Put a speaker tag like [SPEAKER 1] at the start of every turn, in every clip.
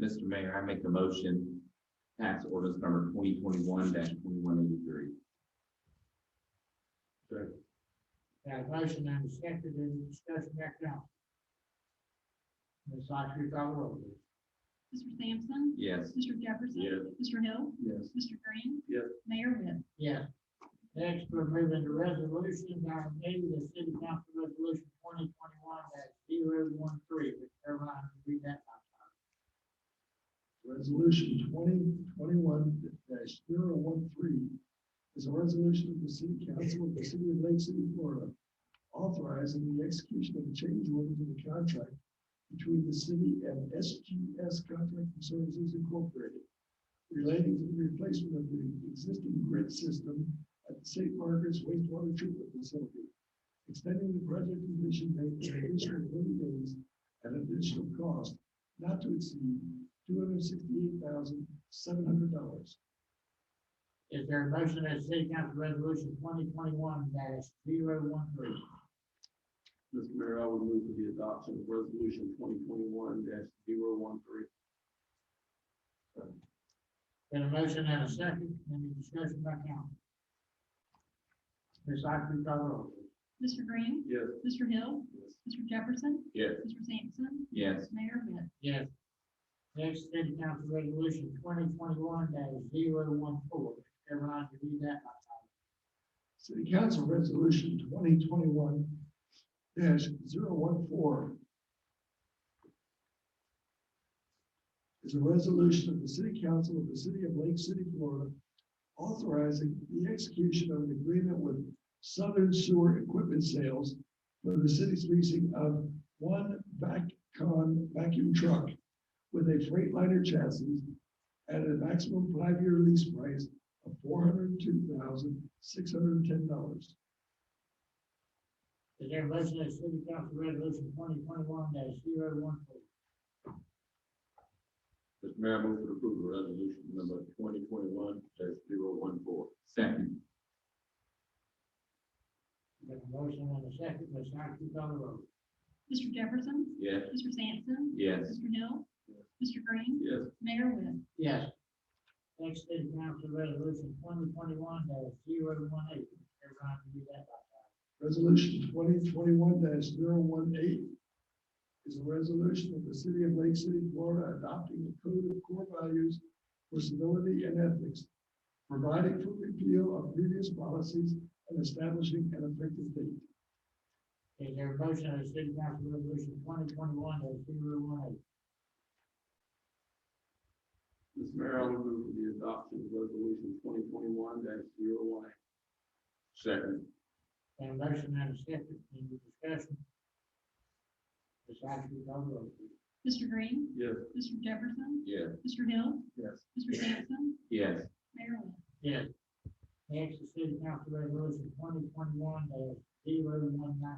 [SPEAKER 1] Mr. Mayor, I make the motion, tax ordinance number twenty twenty-one twenty-one eighty-three.
[SPEAKER 2] Got a motion and a second, any discussion back down? Ms. Sykes, you call the roll, please.
[SPEAKER 3] Mr. Sampson.
[SPEAKER 1] Yes.
[SPEAKER 3] Mr. Jefferson.
[SPEAKER 1] Yes.
[SPEAKER 3] Mr. Hill.
[SPEAKER 1] Yes.
[SPEAKER 3] Mr. Green.
[SPEAKER 1] Yes.
[SPEAKER 3] Mayor Webb.
[SPEAKER 2] Yes. Next, we're moving to resolutions. Item A, the city council resolution twenty twenty-one dash zero one three, which everyone read that.
[SPEAKER 4] Resolution twenty twenty-one 13 is a resolution of the city council of the city of Lake City, Florida, authorizing the execution of a change order to the contract between the city and SGS Contracting Services Incorporated relating to the replacement of the existing grid system at the St. Margaret's wastewater treatment facility, extending the project completion date to an additional thirty days at an additional cost not to exceed two hundred sixty-eight thousand, seven hundred dollars.
[SPEAKER 2] Is there a motion that the city council resolution twenty twenty-one dash zero one three?
[SPEAKER 4] Mr. Mayor, I would move for the adoption of resolution twenty twenty-one 13
[SPEAKER 2] Got a motion and a second, any discussion back down? Ms. Sykes, you call the roll, please.
[SPEAKER 3] Mr. Green.
[SPEAKER 4] Yes.
[SPEAKER 3] Mr. Hill. Mr. Jefferson.
[SPEAKER 1] Yes.
[SPEAKER 3] Mr. Sampson.
[SPEAKER 1] Yes.
[SPEAKER 3] Mayor Webb.
[SPEAKER 2] Yes. Next, city council resolution twenty twenty-one dash zero one four, everyone read that.
[SPEAKER 4] City Council Resolution twenty twenty-one 14 is a resolution of the City Council of the City of Lake City, Florida, authorizing the execution of an agreement with Southern Sewer Equipment Sales for the city's leasing of one VACCon vacuum truck with a Freightliner chassis at a maximum five-year lease price of four hundred two thousand, six hundred and ten dollars.
[SPEAKER 2] Is there a motion that city council resolution twenty twenty-one dash zero one four?
[SPEAKER 1] Mr. Mayor, I move for approval of resolution number twenty twenty-one 14 Second.
[SPEAKER 2] Got a motion and a second, Ms. Sykes, you call the roll.
[SPEAKER 3] Mr. Jefferson.
[SPEAKER 1] Yes.
[SPEAKER 3] Mr. Sampson.
[SPEAKER 1] Yes.
[SPEAKER 3] Mr. Hill. Mr. Green.
[SPEAKER 1] Yes.
[SPEAKER 3] Mayor Webb.
[SPEAKER 2] Yes. Next, city council resolution twenty twenty-one dash zero one eight, everyone read that.
[SPEAKER 4] Resolution twenty twenty-one 18 is a resolution of the city of Lake City, Florida, adopting the code of core values for civility and ethics, providing for repeal of previous policies and establishing an effective date.
[SPEAKER 2] Is there a motion that city council resolution twenty twenty-one dash zero one eight?
[SPEAKER 4] Mr. Mayor, I will move the adoption of resolution twenty twenty-one 18
[SPEAKER 1] Second.
[SPEAKER 2] Got a motion and a second, any discussion? Ms. Sykes, you call the roll.
[SPEAKER 3] Mr. Green.
[SPEAKER 4] Yes.
[SPEAKER 3] Mr. Jefferson.
[SPEAKER 1] Yes.
[SPEAKER 3] Mr. Hill.
[SPEAKER 4] Yes.
[SPEAKER 3] Mr. Sampson.
[SPEAKER 1] Yes.
[SPEAKER 3] Mayor Webb.
[SPEAKER 2] Yes. Next, the city council resolution twenty twenty-one dash zero one nine,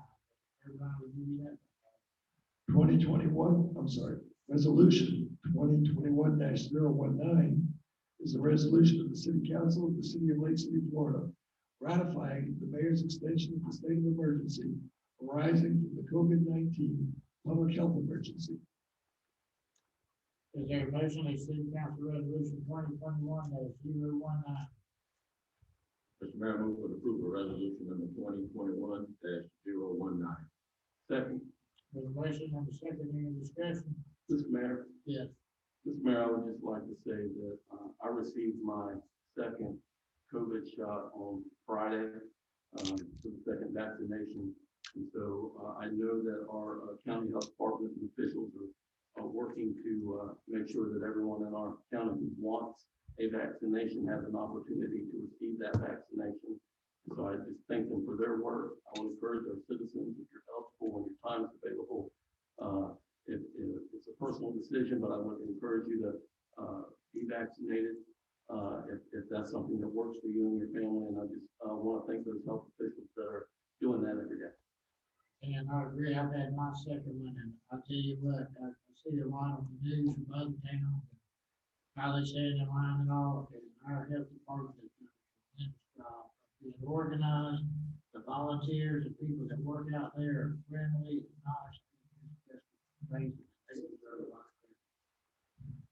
[SPEAKER 2] everyone read that.
[SPEAKER 4] twenty twenty-one, I'm sorry, resolution twenty twenty-one 19 is a resolution of the city council of the city of Lake City, Florida, ratifying the mayor's extension of the state of emergency arising from the COVID-nineteen public health emergency.
[SPEAKER 2] Is there a motion that city council resolution twenty twenty-one dash zero one nine?
[SPEAKER 1] Mr. Mayor, I move for approval of resolution number twenty twenty-one 19 Second.
[SPEAKER 2] There's a motion and a second, any discussion?
[SPEAKER 4] Mr. Mayor,
[SPEAKER 2] Yes.
[SPEAKER 4] Mr. Mayor, I would just like to say that uh, I received my second COVID shot uh, on Friday, um, for the second vaccination. And so uh, I know that our uh, county health department and officials are, are working to uh, make sure that everyone in our county who wants a vaccination has an opportunity to receive that vaccination. So I just thank them for their work. I would encourage our citizens, if you're eligible, when your time is available, uh, it, it- it's a personal decision, but I would encourage you to, uh, be vaccinated, uh, if, if that's something that works for you and your family, and I just, uh, want to thank those health officials that are doing that every day.
[SPEAKER 2] And I agree, I've had my second one, and I tell you what, I I see a lot on the news from other towns. How they stand in line and all, and our health department is doing a tremendous job of being uh, organized. The volunteers, the people that work out there are friendly, nice. and just amazing. They deserve a lot.